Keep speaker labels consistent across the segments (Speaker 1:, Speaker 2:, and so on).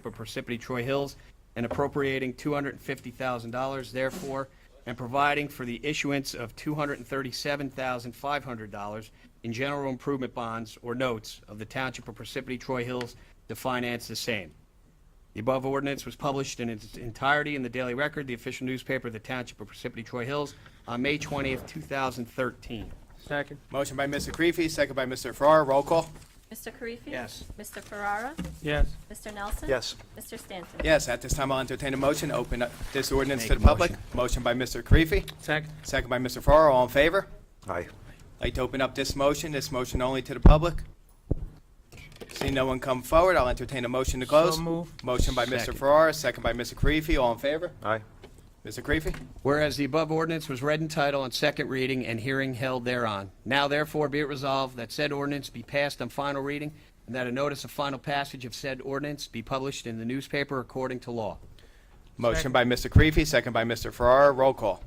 Speaker 1: for Parsippany Troy Hills and appropriating $250,000 therefore, and providing for the issuance of $237,500 in general improvement bonds or notes of the Township of Parsippany Troy Hills to finance the same. The above ordinance was published in its entirety in the Daily Record, the official newspaper of the Township of Parsippany Troy Hills, on May 20th, 2013.
Speaker 2: Second.
Speaker 3: Motion by Mr. Karifi, second by Mr. Farrar. Roll call.
Speaker 4: Mr. Karifi?
Speaker 1: Yes.
Speaker 4: Mr. Ferrara?
Speaker 2: Yes.
Speaker 4: Mr. Nelson?
Speaker 5: Yes.
Speaker 4: Mr. Stanton?
Speaker 3: Yes, at this time, I'll entertain a motion, to open up this ordinance to
Speaker 1: Make
Speaker 3: the
Speaker 1: a
Speaker 3: public. Motion by Mr. Karifi,
Speaker 2: Second.
Speaker 3: second by Mr. Farrar. All in favor?
Speaker 5: Aye.
Speaker 3: Like to open up this motion, this motion only to the public? See no one come forward, I'll entertain a motion to close.
Speaker 2: So move.
Speaker 3: Motion by Mr.
Speaker 1: Second.
Speaker 3: Farrar, second by Mr. Karifi. All in favor?
Speaker 5: Aye.
Speaker 3: Mr. Karifi?
Speaker 1: Whereas the above ordinance was read in title on second reading and hearing held thereon. Now therefore be it resolved that said ordinance be passed on final reading and that a notice of final passage of said ordinance be published in the newspaper according to law.
Speaker 3: Motion by Mr. Karifi, second by Mr. Farrar. Roll call.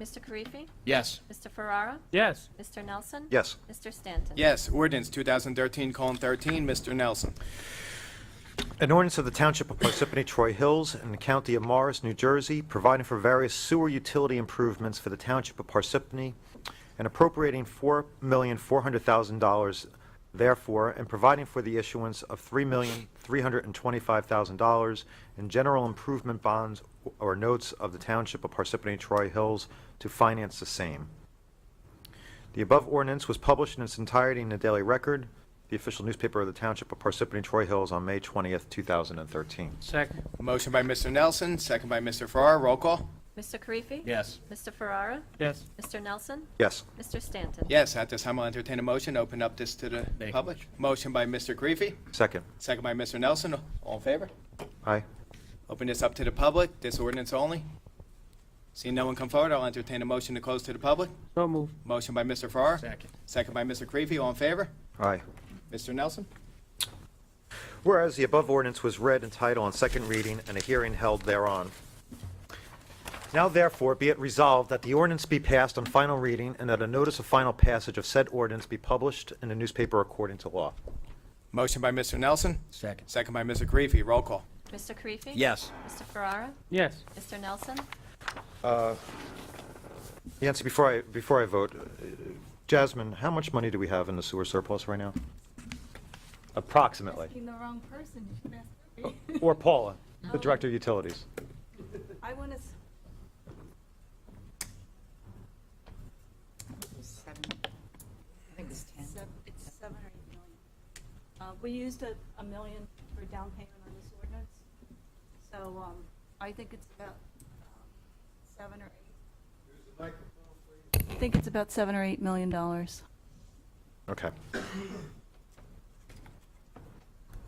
Speaker 4: Mr. Karifi?
Speaker 1: Yes.
Speaker 4: Mr. Ferrara?
Speaker 2: Yes.
Speaker 4: Mr. Nelson?
Speaker 5: Yes.
Speaker 4: Mr. Stanton?
Speaker 3: Yes, ordinance 2013:13, Mr. Nelson.
Speaker 5: An ordinance of the Township of Parsippany Troy Hills and the County of Morris, New Jersey, providing for various sewer utility improvements for the Township of Parsippany and appropriating $4,400,000 therefore, and providing for the issuance of $3,325,000 in general improvement bonds or notes of the Township of Parsippany Troy Hills to finance the same. The above ordinance was published in its entirety in the Daily Record, the official newspaper of the Township of Parsippany Troy Hills, on May 20th, 2013.
Speaker 2: Second.
Speaker 3: Motion by Mr. Nelson, second by Mr. Farrar. Roll call.
Speaker 4: Mr. Karifi?
Speaker 1: Yes.
Speaker 4: Mr. Ferrara?
Speaker 2: Yes.
Speaker 4: Mr. Nelson?
Speaker 5: Yes.
Speaker 4: Mr. Stanton?
Speaker 3: Yes, at this time, I'll entertain a motion, to open up this to the
Speaker 1: Make a
Speaker 3: public. Motion by Mr. Karifi,
Speaker 5: Second.
Speaker 3: second by Mr. Nelson. All in favor?
Speaker 5: Aye.
Speaker 3: Open this up to the public, this ordinance only. Seeing no one come forward, I'll entertain a motion to close to the public.
Speaker 2: So move.
Speaker 3: Motion by Mr. Farrar.
Speaker 1: Second.
Speaker 3: Second by Mr. Karifi, all in favor?
Speaker 5: Aye.
Speaker 3: Mr. Nelson?
Speaker 5: Whereas the above ordinance was read in title on second reading and a hearing held thereon. Now therefore be it resolved that the ordinance be passed on final reading and that a notice of final passage of said ordinance be published in the newspaper according to law.
Speaker 3: Motion by Mr. Nelson,
Speaker 1: Second.
Speaker 3: second by Mr. Karifi, roll call.
Speaker 4: Mr. Karifi?
Speaker 1: Yes.
Speaker 4: Mr. Ferrara?
Speaker 2: Yes.
Speaker 4: Mr. Nelson?
Speaker 5: Yancy, before I, before I vote, uh, Jasmine, how much money do we have in the sewer surplus right now? Approximately.
Speaker 6: Asking the wrong person, you should ask me.
Speaker 5: Or Paula, the Director of Utilities.
Speaker 6: I want to,
Speaker 7: Seven, I think it's ten.
Speaker 6: it's seven or eight million. Uh, we used a, a million for down payment on this ordinance, so, um, I think it's about, um, seven or eight. I think it's about seven or eight million dollars.
Speaker 5: Okay.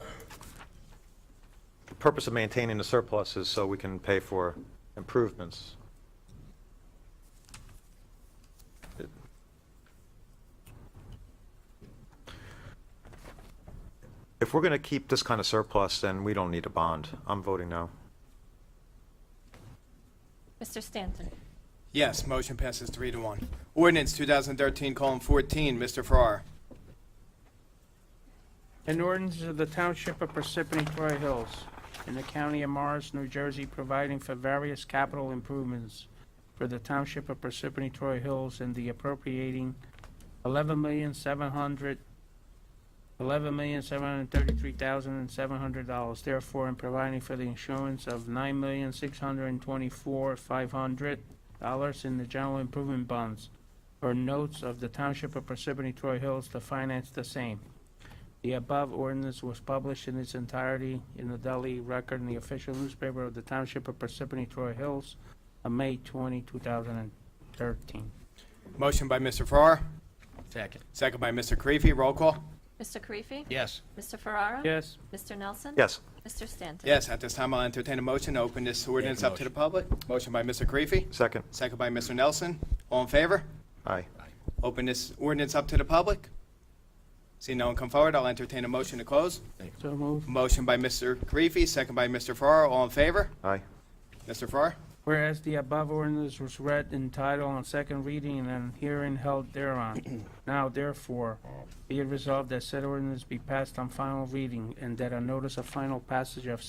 Speaker 5: The purpose of maintaining the surplus is so we can pay for improvements. If we're going to keep this kind of surplus, then we don't need a bond. I'm voting no.
Speaker 4: Mr. Stanton?
Speaker 3: Yes, motion passes three to one. Ordinance 2013:14, Mr. Farrar.
Speaker 2: An ordinance of the Township of Parsippany Troy Hills in the County of Morris, New Jersey, providing for various capital improvements for the Township of Parsippany Troy Hills and the appropriating eleven million seven hundred, eleven million seven hundred thirty-three thousand and seven hundred dollars, therefore, and providing for the insurance of nine million six hundred and twenty-four five hundred dollars in the general improvement bonds or notes of the Township of Parsippany Troy Hills to finance the same. The above ordinance was published in its entirety in the Delhi Record and the official newspaper of the Township of Parsippany Troy Hills on May 20, 2013.
Speaker 3: Motion by Mr. Farrar,
Speaker 1: Second.
Speaker 3: second by Mr. Karifi, roll call.
Speaker 4: Mr. Karifi?
Speaker 1: Yes.
Speaker 4: Mr. Ferrara?
Speaker 2: Yes,
Speaker 4: Mr. Nelson?
Speaker 5: Yes.
Speaker 4: Mr. Stanton?
Speaker 3: Yes, at this time, I'll entertain a motion to open this ordinance up to the public. Motion by Mr. Karifi,
Speaker 5: Second.
Speaker 3: second by Mr. Nelson. All in favor?
Speaker 5: Aye.
Speaker 3: Open this ordinance up to the public. See no one come forward, I'll entertain a motion to close.
Speaker 2: so move.
Speaker 3: Motion by Mr. Karifi, second by Mr. Farrar, all in favor?
Speaker 5: Aye.
Speaker 3: Mr. Farrar?
Speaker 2: Whereas the above ordinance was read in title on second reading and hearing held thereon. Now therefore, be it resolved that said ordinance be passed on final reading and that a notice of final passage of